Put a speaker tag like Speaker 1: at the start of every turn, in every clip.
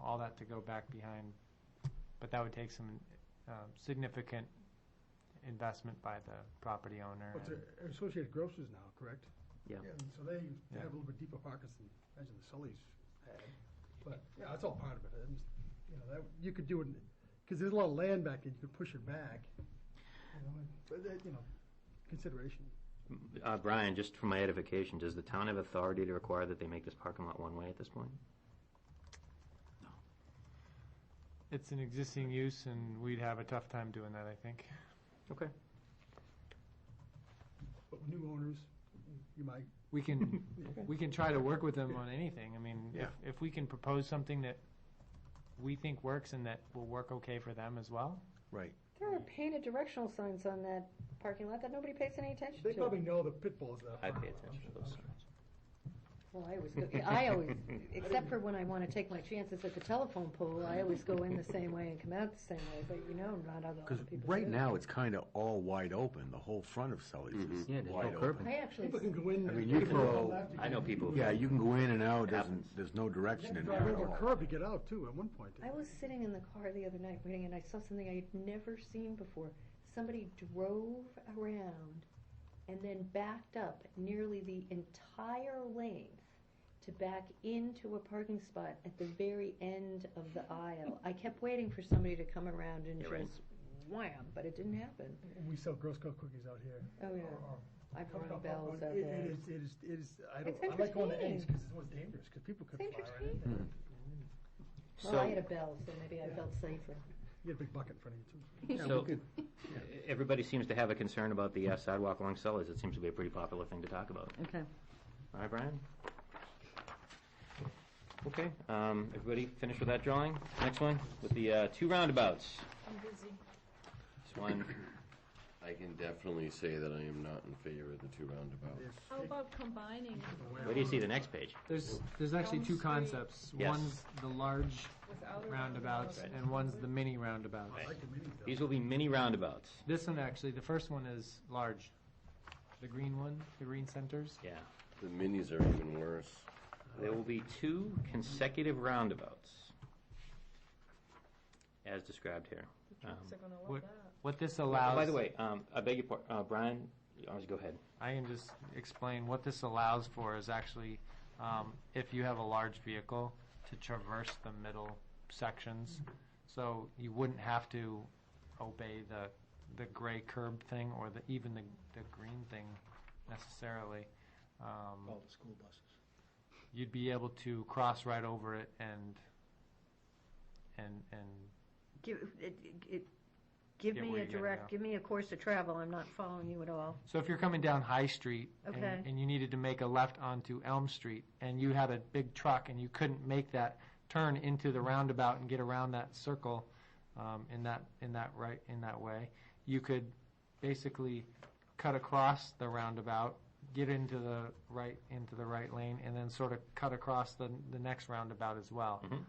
Speaker 1: all that to go back behind, but that would take some um, significant investment by the property owner.
Speaker 2: Well, it's
Speaker 1: and-
Speaker 2: a- Associated Grocers now, correct?
Speaker 3: Yeah.
Speaker 4: Yeah.
Speaker 2: And so they they
Speaker 1: Yeah.
Speaker 2: have a little bit deeper pockets than, imagine the Sullys had. But, yeah, that's all part of it. And, you know, that, you could do it, because there's a lot of land back there, you could push it back. you know, and- But, that, you know, consideration.
Speaker 3: Uh, Brian, just for my edification, does the town have authority to require that they make this parking lot one-way at this point?
Speaker 1: It's an existing use, and we'd have a tough time doing that, I think.
Speaker 3: Okay.
Speaker 2: But with new owners, you might,
Speaker 1: We can, we can try to work with them on anything. I mean, if,
Speaker 4: Yeah.
Speaker 1: if we can propose something that we think works and that will work okay for them as well,
Speaker 4: Right.
Speaker 5: There are painted directional signs on that parking lot that nobody pays any attention
Speaker 2: they
Speaker 5: to.
Speaker 2: probably know the pitfalls that.
Speaker 3: I pay attention to those signs.
Speaker 5: Well, I always, go, I always, except for when I want to take my chances at the telephone pole, I always go in the same way and come out the same way, but you know, not other
Speaker 4: Because
Speaker 5: other people.
Speaker 4: right
Speaker 5: do.
Speaker 4: now, it's kind of all wide open. The whole front of Sully's
Speaker 6: Mm-hmm.
Speaker 4: is
Speaker 3: Yeah, there's no
Speaker 4: wide
Speaker 3: curb.
Speaker 4: open.
Speaker 5: I actually,
Speaker 2: People can go in.
Speaker 4: I
Speaker 2: and
Speaker 4: mean, you
Speaker 2: they can
Speaker 4: throw-
Speaker 2: go left, you
Speaker 3: I know
Speaker 2: can-
Speaker 3: people who-
Speaker 4: Yeah, you can go in and out. There's,
Speaker 3: Happens.
Speaker 4: there's no
Speaker 2: You have
Speaker 4: direction
Speaker 2: to
Speaker 4: in
Speaker 2: drive
Speaker 4: there at
Speaker 2: over a
Speaker 4: all.
Speaker 2: curb to get out too, at one point.
Speaker 5: I was sitting in the car the other night waiting, and I saw something I had never seen before. Somebody drove around and then backed up nearly the entire length to back into a parking spot at the very end of the aisle. I kept waiting for somebody to come around and
Speaker 3: Yeah, right.
Speaker 5: just wham, but it didn't happen.
Speaker 2: We sell Girl Scout cookies out here.
Speaker 5: Oh, yeah.
Speaker 2: Or- or
Speaker 5: I've
Speaker 2: Come
Speaker 5: rung
Speaker 2: up
Speaker 5: bells
Speaker 2: on-
Speaker 5: out
Speaker 2: it-
Speaker 5: there.
Speaker 2: It is, it is, it is, I don't,
Speaker 5: It's
Speaker 2: I like going to
Speaker 5: entertaining.
Speaker 2: Ames because it was dangerous, because people could fly
Speaker 5: It's
Speaker 2: right in there.
Speaker 5: Well, I had a
Speaker 3: So,
Speaker 5: bell, so maybe I felt safer.
Speaker 2: You had a big bucket in front of you too.
Speaker 4: Yeah, we
Speaker 3: so,
Speaker 4: could-
Speaker 3: everybody seems to have a concern about the uh, sidewalk along Sully's. It seems to be a pretty popular thing to talk about.
Speaker 5: Okay.
Speaker 3: All right, Brian? Okay, um, everybody finished with that drawing? Next one, with the, uh, two roundabouts. This one,
Speaker 6: I can definitely say that I am not in favor of the two roundabouts.
Speaker 2: If-
Speaker 7: How about combining
Speaker 3: where do you see the next page?
Speaker 1: There's, there's actually two
Speaker 7: Elm Street.
Speaker 1: concepts.
Speaker 3: Yes.
Speaker 1: One's the large
Speaker 7: without a
Speaker 1: roundabouts,
Speaker 3: Right.
Speaker 1: and one's the mini roundabouts.
Speaker 2: I like the mini though.
Speaker 3: These will be mini roundabouts.
Speaker 1: This one, actually, the first one is large. The green one, the green centers.
Speaker 3: Yeah.
Speaker 6: The minis are even worse.
Speaker 3: There will be two consecutive roundabouts, as described here. Um,
Speaker 7: Trucks are gonna love
Speaker 1: what-
Speaker 7: that.
Speaker 1: What this allows.
Speaker 3: By the way, um, I beg your pardon, uh, Brian, you always go ahead.
Speaker 1: I can just explain what this allows for is actually, um, if you have a large vehicle, to traverse the middle sections. So you wouldn't have to obey the, the gray curb thing or the, even the, the green thing necessarily. Um,
Speaker 4: All the school buses.
Speaker 1: you'd be able to cross right over it and, and, and,
Speaker 5: Give, it, it, give
Speaker 1: Yeah,
Speaker 5: me
Speaker 1: where
Speaker 5: a
Speaker 1: you gotta go.
Speaker 5: direct, give me a course to travel, I'm not following you at all.
Speaker 1: so if you're coming down High Street and-
Speaker 5: Okay.
Speaker 1: and you needed to make a left onto Elm Street and you had a big truck and you couldn't make that turn into the roundabout and get around that circle, um, in that, in that right, in that way, you could basically cut across the roundabout, get into the right, into the right lane and then sort of cut across the, the next roundabout as well.
Speaker 3: Mhm.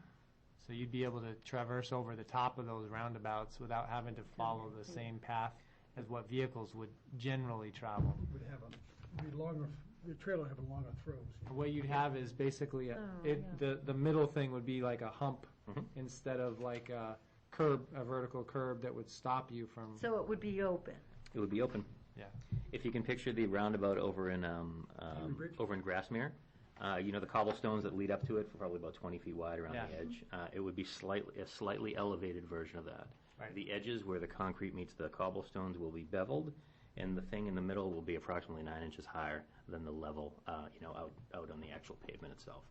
Speaker 1: So you'd be able to traverse over the top of those roundabouts without having to follow the same path as what vehicles would generally travel.
Speaker 2: Would have a, be longer, the trailer would have a longer throws.
Speaker 1: What you'd have is basically, a-
Speaker 7: Oh,
Speaker 1: it, the, the middle thing would be like a hump
Speaker 8: Mm-hmm.
Speaker 3: Mhm.
Speaker 1: instead of like a curb, a vertical curb that would stop you from,
Speaker 5: So it would be open.
Speaker 3: It would be open.
Speaker 1: Yeah.
Speaker 3: If you can picture the roundabout over in, um,
Speaker 2: Avery
Speaker 3: um,
Speaker 2: Bridge?
Speaker 3: over in Grassmere, uh, you know, the cobblestones that lead up to it, probably about twenty feet wide around
Speaker 1: Yeah.
Speaker 3: the edge. Uh, it would be slightly, a slightly elevated version of that.
Speaker 1: Right.
Speaker 3: The edges where the concrete meets the cobblestones will be beveled, and the thing in the middle will be approximately nine inches higher than the level, uh, you know, out, out on the actual pavement itself.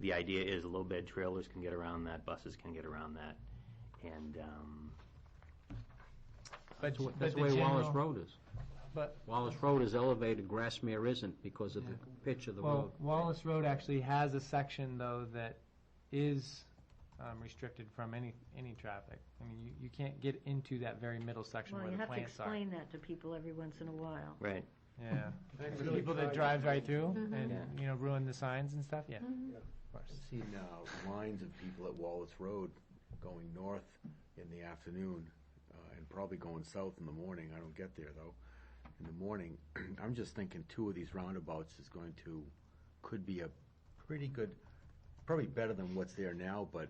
Speaker 3: The idea is low bed trailers can get around that, buses can get around that, and, um,
Speaker 1: but
Speaker 8: That's
Speaker 1: the
Speaker 8: the way
Speaker 1: general-
Speaker 8: Wallace Road is.
Speaker 1: But-
Speaker 8: Wallace Road is elevated, Grassmere isn't because of the pitch of the road.
Speaker 1: Well, Wallace Road actually has a section though that is um, restricted from any, any traffic. I mean, you, you can't get into that very middle section
Speaker 5: Well,
Speaker 1: where
Speaker 5: you
Speaker 1: the
Speaker 5: have to
Speaker 1: plants are.
Speaker 5: explain that to people every once in a while.
Speaker 3: right,
Speaker 1: Yeah.
Speaker 2: Really
Speaker 1: People that
Speaker 2: drive-
Speaker 1: drive right through and,
Speaker 3: Yeah.
Speaker 1: you know, ruin the signs and stuff, yeah. Of course.
Speaker 4: I've seen uh, lines of people at Wallace Road going north in the afternoon uh, and probably going south in the morning. I don't get there though. In the morning, I'm just thinking two of these roundabouts is going to, could be a pretty good, probably better than what's there now, but